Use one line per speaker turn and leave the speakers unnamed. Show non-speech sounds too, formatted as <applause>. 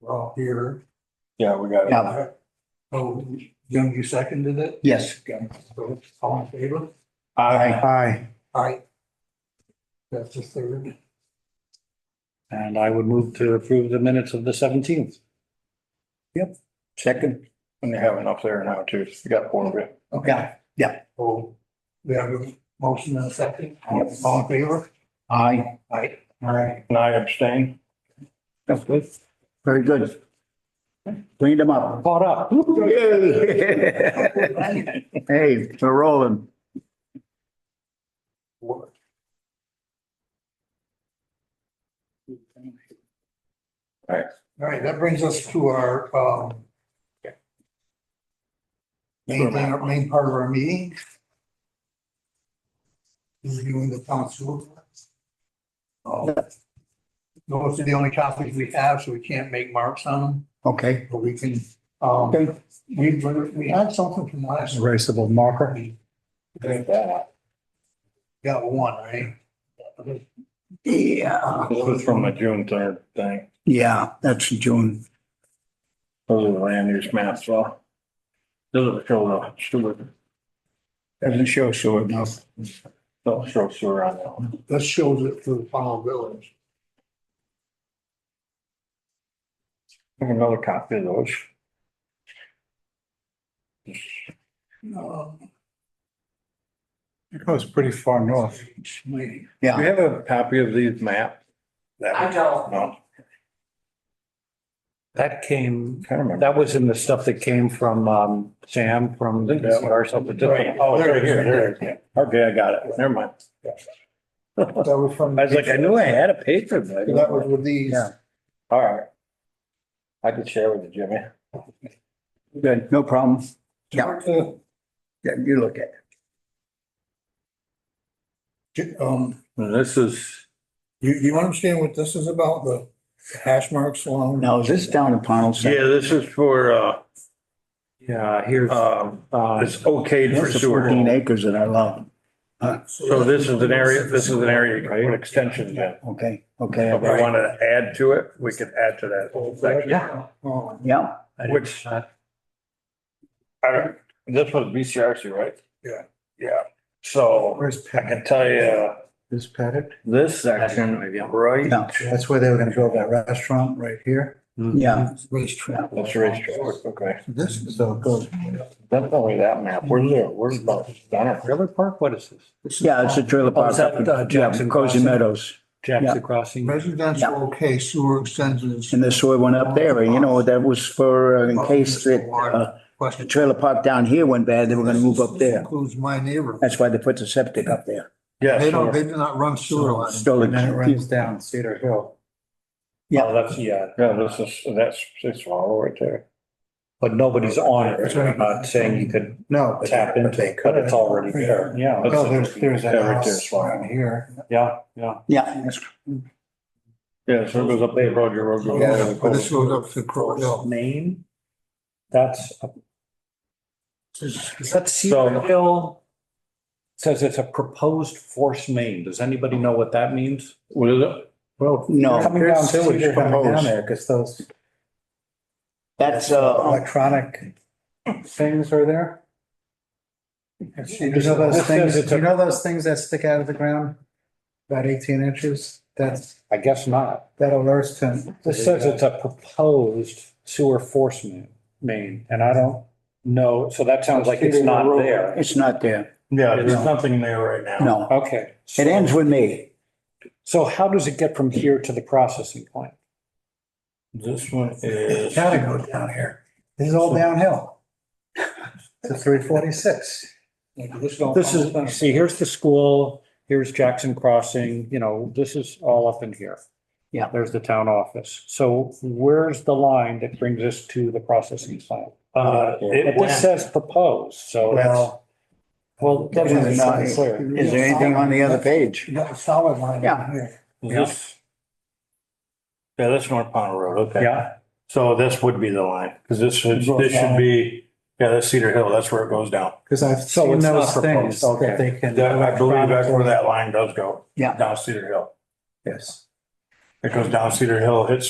we're all here.
Yeah, we got it.
Yeah.
Oh, Jim, you seconded it?
Yes.
Okay, so all in favor?
Aye.
Aye.
Aye. That's the third.
And I would move to approve the minutes of the seventeenth.
Second.
And you have enough there now too. You got four of you.
Yeah.
So Oh, we have a motion and a second. All in favor?
Aye.
Aye.
Aye.
And I abstain.
That's good. Very good. Cleaned them up.
Caught up.
Yay. <laughs> Hey, we're rolling.
All right, that brings us to our, um, main, thing, our main part of our meeting. Reviewing the town sewer. plans. Um, Those are the only copies we have, so we can't make marks on them,
Okay.
but we can, um,
Okay.
we, we had something from last.
Erasable marker.
week. Got one, right? Yeah.
This was from the June third thing.
Yeah, that's June.
Those are the land use maps, so. Those are show the sewer,
Doesn't show sure enough.
those show sewer on that one.
That shows it for the final village.
Have another copy of those.
Um,
It goes pretty far north.
my-
Do you
Yeah.
have a copy of these maps?
I don't.
No,
That came,
can't remember.
that was in the stuff that came from um Sam from the
Yeah.
DCR. something
Right.
different.
Oh, there it is, there it is. Okay, I got it. Never mind.
That was from.
I was like, I knew I had a paper, but. I didn't-
That was with these.
Yeah.
All right. I could share with you, Jimmy.
Good. No problem. Yeah.
Uh,
Yeah, you look at it.
j- Um,
And this is,
you, you understand what this is about, the hash marks along?
Now, is this down in Pownell?
yeah, this is for, uh,
Yeah, here's
um,
uh
it's okayed for
That's the fourteen
sewer.
acres that I love.
So this is an area, this is an area you can put extensions in.
Okay,
If
okay.
we want to add to it, we could add to that whole section.
Yeah.
Oh,
Yeah,
I didn't-
Which- I don't- This was BCRC, right?
Yeah.
Yeah, so
Where's
I
Pettit?
can tell you,
Is Pettit?
this section, right?
yeah,
That's where they were gonna build that restaurant right here.
yeah.
racetrack.
That's racetrack, okay.
This is so good.
That's only that map. Where's the, where's the, Donna?
River Park, what is this?
Yeah, it's a trailer
Oh,
park.
is that,
up in-
uh, Jackson
yeah, Cozy
Crossing?
Meadows.
Jackson Crossing.
Residential, okay, sewer extensions.
And the sewer went up there, and you know, that was for, uh, in case that, uh, the
Question.
trailer park down here went bad, they were gonna move up there.
Includes my neighbor.
That's why they put the septic up there.
Yeah.
They don't,
so-
they do not run sewer lines.
Stole it.
down Cedar Hill.
Yeah.
Oh, that's, yeah,
Yeah, this is, that's, it's all right there.
but nobody's on it. They're not saying you could
No.
tap into it, but it's already there. Yeah.
No, there's, there's
Yeah,
a
right there,
house
it's fine.
down here.
Yeah, yeah.
Yeah, that's
Yeah, so it goes up there, road, your road. your road,
Yeah,
your
but
road.
this goes up to Crow Hill.
Maine. That's,
This is-
that's Cedar Hill. Says it's a proposed force main. Does anybody know what that means?
What is it?
no,
Coming down Cedar Hill.
down
there, because those
that's,
Um,
uh,
electronic.
Things are there?
You know those
This says
things,
it's
you
a-
know those things that stick out of the ground? About eighteen inches? That's,
I guess not.
that'll last ten.
This says it's a proposed sewer force main, main, and I don't know, so that sounds like it's not there.
it's not there.
Yeah, there's nothing there right now.
No,
Okay.
it ends with me.
So how does it get from here to the processing plant?
This one is.
Gotta go down here. This is all downhill. <laughs> To three forty-six.
This is, see, here's the school, here's Jackson Crossing, you know, this is all up in here.
Yeah.
There's the town office. So where's the line that brings us to the processing plant?
Uh, it
But this
went,
says proposed, so that's,
Well,
well, that's not
Is
clear.
there anything on the other page?
You got a solid line.
Yeah.
here.
this. Yeah, that's North Pownell Road, okay.
Yeah,
So this would be the line, because this should, this should be, yeah, that's Cedar Hill, that's where it goes down.
because I've
So
seen
Oh, it's not
those things
proposed, okay.
that they can.
That- I believe that's where that line does go.
Yeah.
Down Cedar Hill.
Yes.
It goes down Cedar Hill, hits